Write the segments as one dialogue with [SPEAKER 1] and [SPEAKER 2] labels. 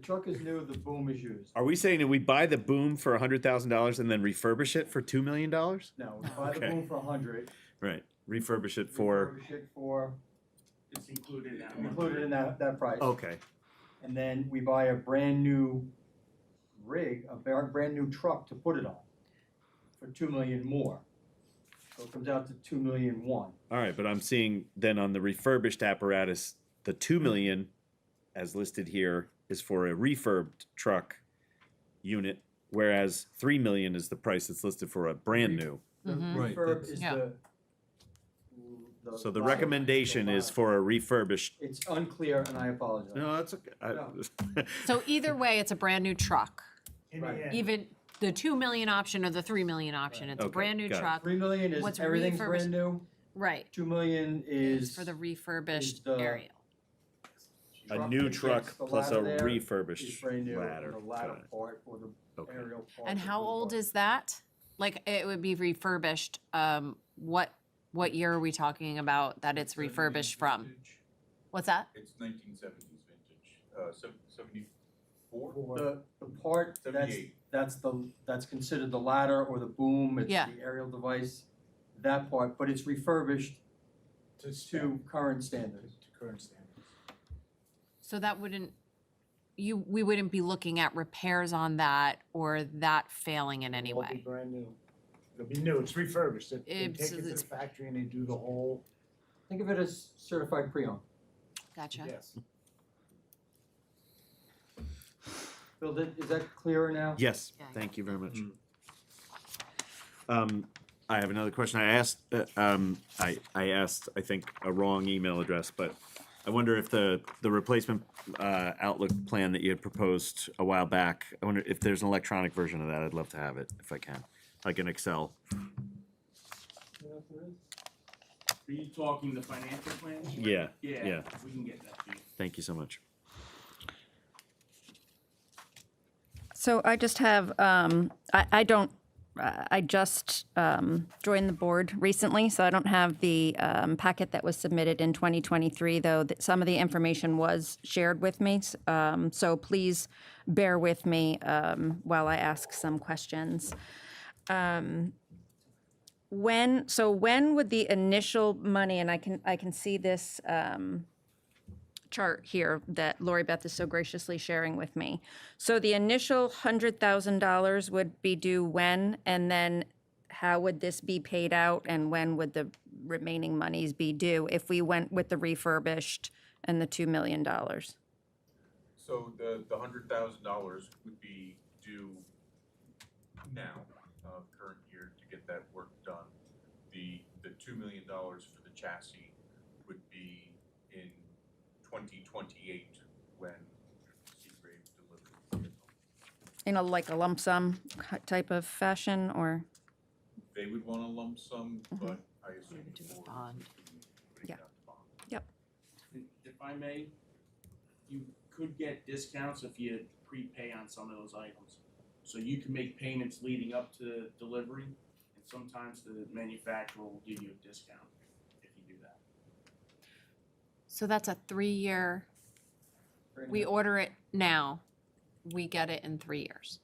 [SPEAKER 1] The truck is new, the boom is used.
[SPEAKER 2] Are we saying that we buy the boom for hundred thousand dollars and then refurbish it for two million dollars?
[SPEAKER 1] No, we buy the
[SPEAKER 2] Okay.
[SPEAKER 1] boom for a hundred.
[SPEAKER 2] Right, refurbish it for,
[SPEAKER 1] refurbish it For,
[SPEAKER 3] It's included in that one.
[SPEAKER 1] included in that, that price.
[SPEAKER 2] okay,
[SPEAKER 1] And then we buy a brand new rig, a bar- brand new truck to put it on for two million more. So it comes out to two million one.
[SPEAKER 2] all right, but I'm seeing then on the refurbished apparatus, the two million as listed here is for a refurbed truck unit, whereas three million is the price that's listed for a brand new.
[SPEAKER 1] The
[SPEAKER 4] Mhm.
[SPEAKER 5] Right,
[SPEAKER 1] refurb
[SPEAKER 5] that's-
[SPEAKER 1] is
[SPEAKER 4] Yeah.
[SPEAKER 1] the. the
[SPEAKER 2] So the
[SPEAKER 1] bottom-
[SPEAKER 2] recommendation
[SPEAKER 1] the
[SPEAKER 2] is
[SPEAKER 1] bottom.
[SPEAKER 2] for a refurbished,
[SPEAKER 1] It's unclear and I apologize.
[SPEAKER 2] no, that's okay.
[SPEAKER 1] No.
[SPEAKER 2] I-
[SPEAKER 4] So either way, it's a brand new truck.
[SPEAKER 3] In the
[SPEAKER 1] Right.
[SPEAKER 3] end,
[SPEAKER 4] Even the two million option or the three million option, it's a
[SPEAKER 2] Okay,
[SPEAKER 4] brand new
[SPEAKER 2] got it.
[SPEAKER 4] truck.
[SPEAKER 1] Three million is
[SPEAKER 4] What's
[SPEAKER 1] everything's
[SPEAKER 4] refurbished-
[SPEAKER 1] brand new,
[SPEAKER 4] Right.
[SPEAKER 1] two million is.
[SPEAKER 4] For the refurbished
[SPEAKER 1] the-
[SPEAKER 4] aerial.
[SPEAKER 2] A new
[SPEAKER 1] that
[SPEAKER 2] truck
[SPEAKER 1] fits the
[SPEAKER 2] plus a
[SPEAKER 1] ladder there is
[SPEAKER 2] refurbished
[SPEAKER 1] brand new, and
[SPEAKER 2] ladder.
[SPEAKER 1] the
[SPEAKER 2] Got
[SPEAKER 1] ladder
[SPEAKER 2] it.
[SPEAKER 1] part or the
[SPEAKER 2] Okay.
[SPEAKER 1] aerial part.
[SPEAKER 4] And
[SPEAKER 1] is
[SPEAKER 4] how
[SPEAKER 1] the
[SPEAKER 4] old
[SPEAKER 1] bar-
[SPEAKER 4] is that? Like it would be refurbished, um, what, what year are we talking about that it's refurbished from? What's that?
[SPEAKER 6] It's nineteen seventies vintage, uh, seventy-four?
[SPEAKER 1] The, the part that's,
[SPEAKER 6] 78.
[SPEAKER 1] that's the, that's considered the ladder or the boom, it's
[SPEAKER 4] Yeah.
[SPEAKER 1] the aerial device, that part, but it's refurbished to current standards.
[SPEAKER 3] to current standards.
[SPEAKER 4] So that wouldn't, you, we wouldn't be looking at repairs on that or that failing in any
[SPEAKER 3] It'll be
[SPEAKER 4] way.
[SPEAKER 3] brand new. It'll be new, it's refurbished. They- They
[SPEAKER 4] It's-
[SPEAKER 3] take it to the
[SPEAKER 4] it's-
[SPEAKER 3] factory and they do the whole,
[SPEAKER 1] Think of it as certified pre-owned,
[SPEAKER 4] Gotcha.
[SPEAKER 3] yes.
[SPEAKER 1] Bill, did- is that clearer now?
[SPEAKER 2] Yes,
[SPEAKER 4] Yeah, yeah.
[SPEAKER 2] thank you very much. Um, I have another question. I asked, uh, um, I, I asked, I think, a wrong email address, but I wonder if the, the replacement, uh, Outlook plan that you had proposed a while back, I wonder if there's an electronic version of that. I'd love to have it if I can, like an Excel.
[SPEAKER 7] Are you talking the financial plans?
[SPEAKER 2] Yeah,
[SPEAKER 7] Yeah,
[SPEAKER 2] yeah.
[SPEAKER 7] we can get that to you.
[SPEAKER 2] Thank you so much.
[SPEAKER 8] So I just have, um, I, I don't, I I just um, joined the board recently, so I don't have the um, packet that was submitted in 2023, though that some of the information was shared with me. s- um, So please bear with me um, while I ask some questions. Um, When, so when would the initial money, and I can, I can see this um, chart here that Lori Beth is so graciously sharing with me. So the initial hundred thousand dollars would be due when, and then how would this be paid out, and when would the remaining monies be due if we went with the refurbished and the two million dollars?
[SPEAKER 6] So the, the hundred thousand dollars would be due now, uh, current year to get that work done. The, the two million dollars for the chassis would be in twenty twenty-eight when Seagrave delivers the vehicle.
[SPEAKER 8] In a like a lump sum ki- type of fashion, or
[SPEAKER 6] They would want a lump sum, but I assume
[SPEAKER 4] Maybe do
[SPEAKER 6] the
[SPEAKER 4] a
[SPEAKER 6] board
[SPEAKER 4] bond.
[SPEAKER 6] would be putting
[SPEAKER 8] Yeah.
[SPEAKER 6] out the bond.
[SPEAKER 7] And If I may, you could get discounts if you prepay on some of those items. So you can make payments leading up to delivery, and sometimes the manufacturer will give you a discount if you do that.
[SPEAKER 4] So that's a three-year,
[SPEAKER 1] Brand
[SPEAKER 4] we
[SPEAKER 1] new.
[SPEAKER 4] order it now, we get it in three years.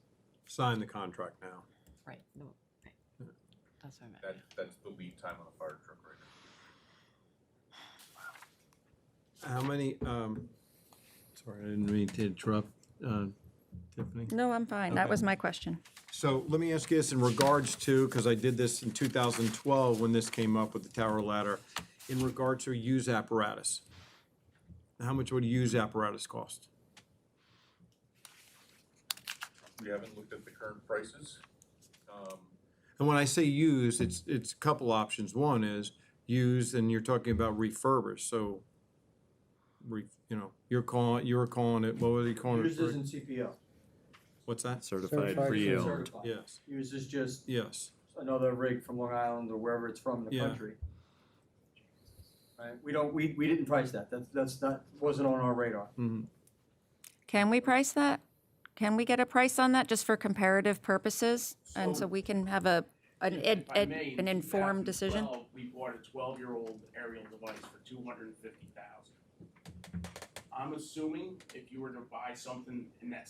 [SPEAKER 5] Sign the contract now.
[SPEAKER 4] Right. no, right. That's what I meant.
[SPEAKER 6] That, that's the lead time on a fire truck right now.
[SPEAKER 5] How many, um, sorry, I didn't mean to interrupt, uh, Tiffany.
[SPEAKER 8] no? I'm fine. That
[SPEAKER 5] Okay.
[SPEAKER 8] was my question.
[SPEAKER 5] So let me ask you this in regards to, because I did this in 2012 when this came up with the tower ladder, in regard to use apparatus. How much would a use apparatus cost?
[SPEAKER 6] We haven't looked at the current prices. Um,
[SPEAKER 5] And when I say use, it's, it's a couple options. One is use, and you're talking about refurbish, so, re, you know, you're calling, you were calling it, what were you calling
[SPEAKER 1] Used
[SPEAKER 5] it?
[SPEAKER 1] isn't CPO.
[SPEAKER 5] What's that?
[SPEAKER 2] Certified
[SPEAKER 3] Certified
[SPEAKER 2] pre-owned.
[SPEAKER 1] Certified.
[SPEAKER 5] Yes,
[SPEAKER 1] Used is just
[SPEAKER 5] yes.
[SPEAKER 1] another rig from Long Island or wherever it's from in the
[SPEAKER 5] Yeah.
[SPEAKER 1] country. Right, we don't, we, we didn't price that, that's, that's not, wasn't on our radar.
[SPEAKER 8] Can we price that? Can we get a price on that just for comparative purposes, and so
[SPEAKER 7] So-
[SPEAKER 8] we can have a an
[SPEAKER 7] If-
[SPEAKER 8] ed,
[SPEAKER 7] if I
[SPEAKER 8] ed,
[SPEAKER 7] may, in
[SPEAKER 8] an informed decision?
[SPEAKER 7] 2012, We bought a twelve-year-old aerial device for two hundred and fifty thousand. I'm assuming if you were to buy something in that